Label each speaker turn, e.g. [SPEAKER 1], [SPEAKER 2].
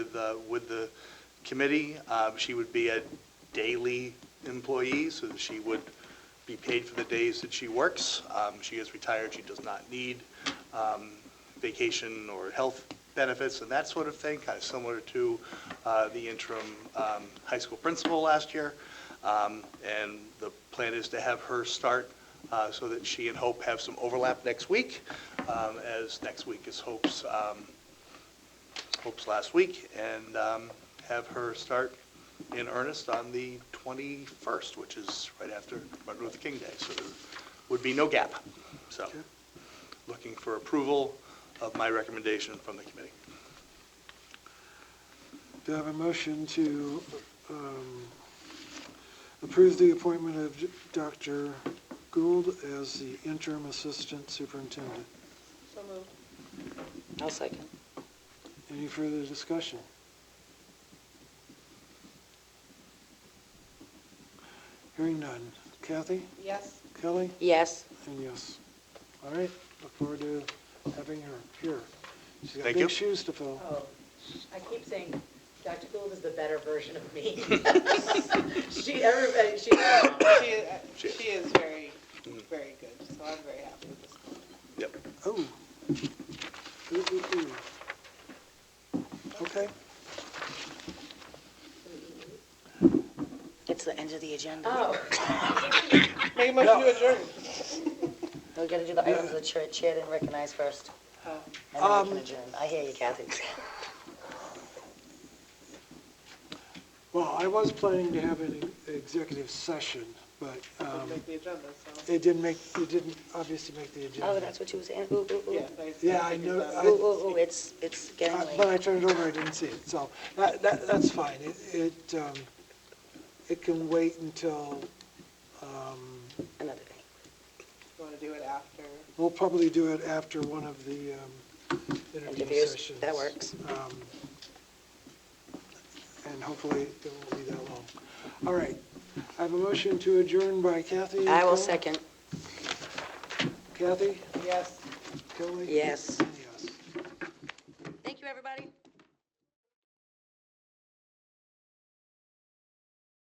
[SPEAKER 1] with, uh, with the committee. Um, She would be a daily employee, so that she would be paid for the days that she works. Um, She is retired, she does not need um, vacation or health benefits and that sort of thing, kind of similar to uh, the interim um, high school principal last year. Um, And the plan is to have her start uh, so that she and Hope have some overlap next week, um, as next week is Hope's, um, Hope's last week, and um, have her start in earnest on the 21st, which is right after Martin Luther King Day, so there would be no gap. So, looking for approval of my recommendation from the committee.
[SPEAKER 2] Do I have a motion to um, approve the appointment of Dr. Gould as the interim assistant superintendent?
[SPEAKER 3] So moved.
[SPEAKER 4] I'll second.
[SPEAKER 2] Any further discussion? Hearing none. Kathy,
[SPEAKER 3] Yes.
[SPEAKER 2] Kelly,
[SPEAKER 4] Yes.
[SPEAKER 2] and yes. All right, look forward to having her here. She's got
[SPEAKER 1] Thank you.
[SPEAKER 2] big shoes to fill.
[SPEAKER 5] Oh, I keep saying Dr. Gould is the better version of me. She, everybody, she,
[SPEAKER 3] She is, she is very, very good, so I'm very happy with this.
[SPEAKER 1] Yep.
[SPEAKER 2] Oh. Ooh, ooh, ooh. Okay.
[SPEAKER 4] It's the end of the agenda.
[SPEAKER 5] oh,
[SPEAKER 3] Make a motion to adjourn.
[SPEAKER 4] We gotta do the items the chair, chair didn't recognize first.
[SPEAKER 3] Oh.
[SPEAKER 4] And then we
[SPEAKER 2] Um,
[SPEAKER 4] can adjourn. I hear you, Kathy.
[SPEAKER 2] Well, I was planning to have an executive session, but um,
[SPEAKER 3] Make the agenda, so.
[SPEAKER 2] it didn't make, it didn't obviously make the agenda.
[SPEAKER 4] Oh, that's what you was saying. Ooh, ooh,
[SPEAKER 3] Yeah,
[SPEAKER 4] ooh.
[SPEAKER 3] nice.
[SPEAKER 2] Yeah, I know-
[SPEAKER 4] Ooh, ooh, ooh, it's, it's getting
[SPEAKER 2] Uh, But
[SPEAKER 4] late.
[SPEAKER 2] I turned it over, I didn't see it, so that, that, that's fine. It- It, um, it can wait until, um,
[SPEAKER 4] Another day.
[SPEAKER 3] Want to do it after?
[SPEAKER 2] we'll probably do it after one of the um, interview
[SPEAKER 4] Interviews,
[SPEAKER 2] sessions.
[SPEAKER 4] that works.
[SPEAKER 2] Um, And hopefully it won't be that long. All right, I have a motion to adjourn by Kathy.
[SPEAKER 4] I
[SPEAKER 2] Kelly?
[SPEAKER 4] will second.
[SPEAKER 2] Kathy,
[SPEAKER 3] Yes.
[SPEAKER 2] Kelly?
[SPEAKER 4] Yes.
[SPEAKER 2] And